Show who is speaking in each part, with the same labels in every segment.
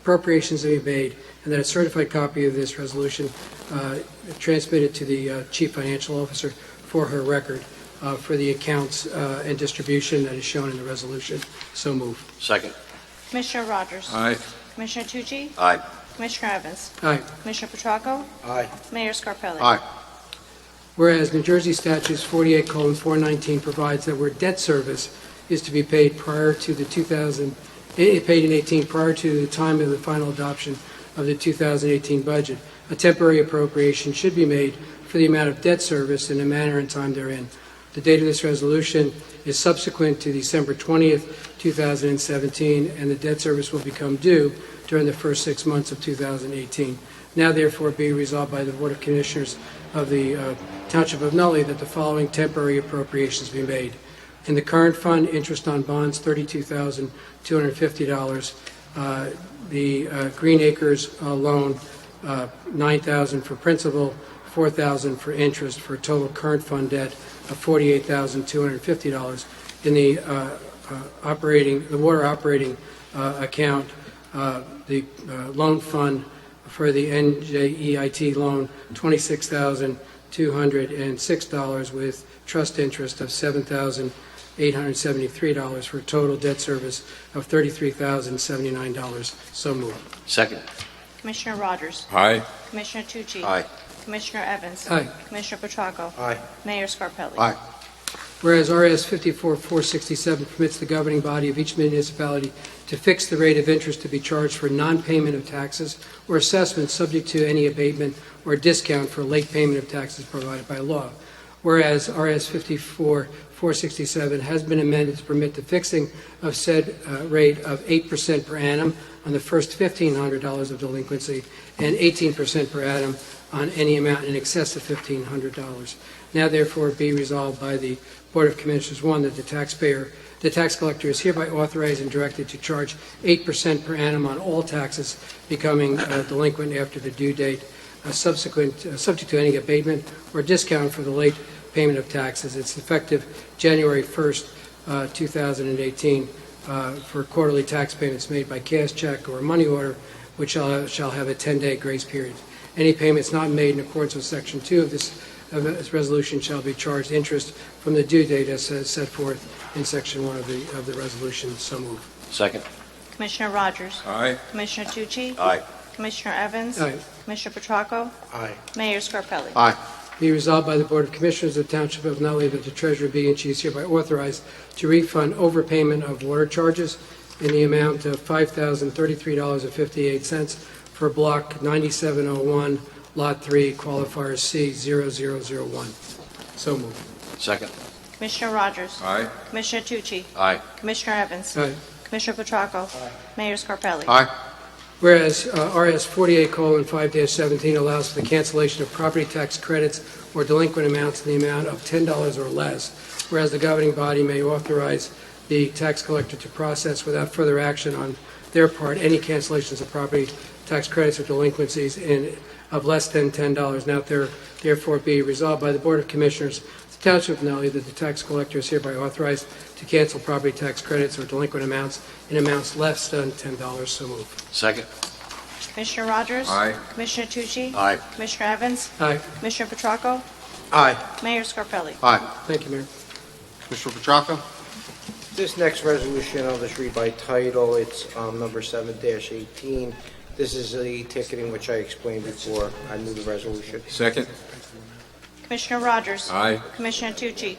Speaker 1: appropriations to be made, and that a certified copy of this resolution uh, transmitted to the uh, Chief Financial Officer for her record uh, for the accounts uh, and distribution that is shown in the resolution. So moved.
Speaker 2: Second.
Speaker 3: Commissioner Rogers?
Speaker 4: Aye.
Speaker 3: Commissioner Tucci?
Speaker 2: Aye.
Speaker 3: Commissioner Evans?
Speaker 1: Aye.
Speaker 3: Commissioner Petracco?
Speaker 4: Aye.
Speaker 3: Mayor Scarpelli?
Speaker 2: Aye.
Speaker 1: Whereas New Jersey statutes 48 colon 419 provides that where debt service is to be paid prior to the 2000, eh, paid in 18, prior to the time of the final adoption of the 2018 budget, a temporary appropriation should be made for the amount of debt service in the manner and time therein. The date of this resolution is subsequent to December 20th, 2017, and the debt service will become due during the first six months of 2018. Now therefore be resolved by the Board of Commissioners of the uh, Township of Nutley that the following temporary appropriations be made. In the current fund, interest on bonds, $32,250. Uh, The uh, Green Acres uh, loan, uh, $9,000 for principal, $4,000 for interest, for a total current fund debt of $48,250. In the uh, uh, operating, the water operating uh, account, uh, the uh, loan fund for the NJEIT loan, $26,206 with trust interest of $7,873 for a total debt service of $33,079. So moved.
Speaker 2: Second.
Speaker 3: Commissioner Rogers?
Speaker 4: Aye.
Speaker 3: Commissioner Tucci?
Speaker 2: Aye.
Speaker 3: Commissioner Evans?
Speaker 1: Aye.
Speaker 3: Commissioner Petracco?
Speaker 4: Aye.
Speaker 3: Mayor Scarpelli?
Speaker 2: Aye.
Speaker 1: Whereas RS 54-467 permits the governing body of each municipality to fix the rate of interest to be charged for non-payment of taxes or assessments subject to any abatement or discount for late payment of taxes provided by law. Whereas RS 54-467 has been amended to permit the fixing of said uh, rate of 8% per annum on the first $1,500 of delinquency and 18% per annum on any amount in excess of $1,500. Now therefore be resolved by the Board of Commissioners, one, that the taxpayer, the tax collector is hereby authorized and directed to charge 8% per annum on all taxes becoming uh, delinquent after the due date, uh, subsequent, uh, subject to any abatement or discount for the late payment of taxes. It's effective January 1st, uh, 2018, uh, for quarterly tax payments made by cash check or money order, which uh, shall have a 10-day grace period. Any payments not made in accordance with Section 2 of this of this resolution shall be charged interest from the due date as as set forth in Section 1 of the, of the resolution. So moved.
Speaker 2: Second.
Speaker 3: Commissioner Rogers?
Speaker 4: Aye.
Speaker 3: Commissioner Tucci?
Speaker 2: Aye.
Speaker 3: Commissioner Evans?
Speaker 1: Aye.
Speaker 3: Commissioner Petracco?
Speaker 4: Aye.
Speaker 3: Mayor Scarpelli?
Speaker 2: Aye.
Speaker 1: Be resolved by the Board of Commissioners of the Township of Nutley that the Treasurer be and she is hereby authorized to refund overpayment of water charges in the amount of $5,033.58 for Block 9701, Lot 3, Qualifier C0001. So moved.
Speaker 2: Second.
Speaker 3: Commissioner Rogers?
Speaker 4: Aye.
Speaker 3: Commissioner Tucci?
Speaker 2: Aye.
Speaker 3: Commissioner Evans?
Speaker 1: Aye.
Speaker 3: Commissioner Petracco? Mayor Scarpelli?
Speaker 2: Aye.
Speaker 1: Whereas uh, RS 48:5-17 allows for the cancellation of property tax credits or delinquent amounts in the amount of $10 or less, whereas the governing body may authorize the tax collector to process without further action on their part any cancellations of property tax credits or delinquencies in, of less than $10. Now there- therefore be resolved by the Board of Commissioners of the Township of Nutley that the tax collector is hereby authorized to cancel property tax credits or delinquent amounts in amounts less than $10. So moved.
Speaker 2: Second.
Speaker 3: Commissioner Rogers?
Speaker 4: Aye.
Speaker 3: Commissioner Tucci?
Speaker 2: Aye.
Speaker 3: Commissioner Evans?
Speaker 1: Aye.
Speaker 3: Commissioner Petracco?
Speaker 2: Aye.
Speaker 3: Mayor Scarpelli?
Speaker 2: Aye.
Speaker 1: Thank you, Mayor.
Speaker 2: Commissioner Petracca?
Speaker 5: This next resolution, I'll just read by title, it's um, number 7-18. This is the ticketing which I explained before. I move the resolution.
Speaker 4: Second.
Speaker 3: Commissioner Rogers?
Speaker 4: Aye.
Speaker 3: Commissioner Tucci?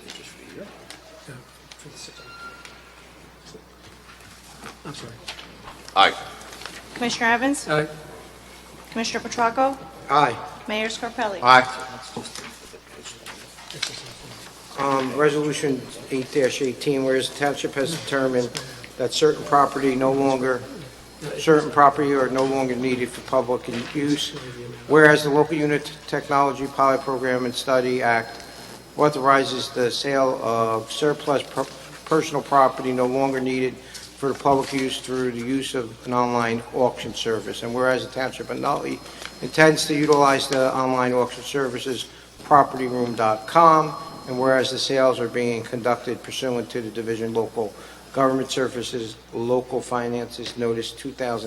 Speaker 1: I'm sorry. Uh,
Speaker 2: Aye.
Speaker 3: Commissioner Evans?
Speaker 1: Aye.
Speaker 3: Commissioner Petracco?
Speaker 5: Aye.
Speaker 3: Mayor Scarpelli?
Speaker 2: Aye.
Speaker 5: Um, Resolution 8-18, whereas the township has determined that certain property no longer, certain property are no longer needed for public use, whereas the Local Unit Technology Pilot Program and Study Act authorizes the sale of surplus per- personal property no longer needed for the public use through the use of an online auction service, and whereas the township of Nutley intends to utilize the online auction services propertyroom.com and whereas the sales are being conducted pursuant to the Division Local Government Services Local Finances Notice 2000.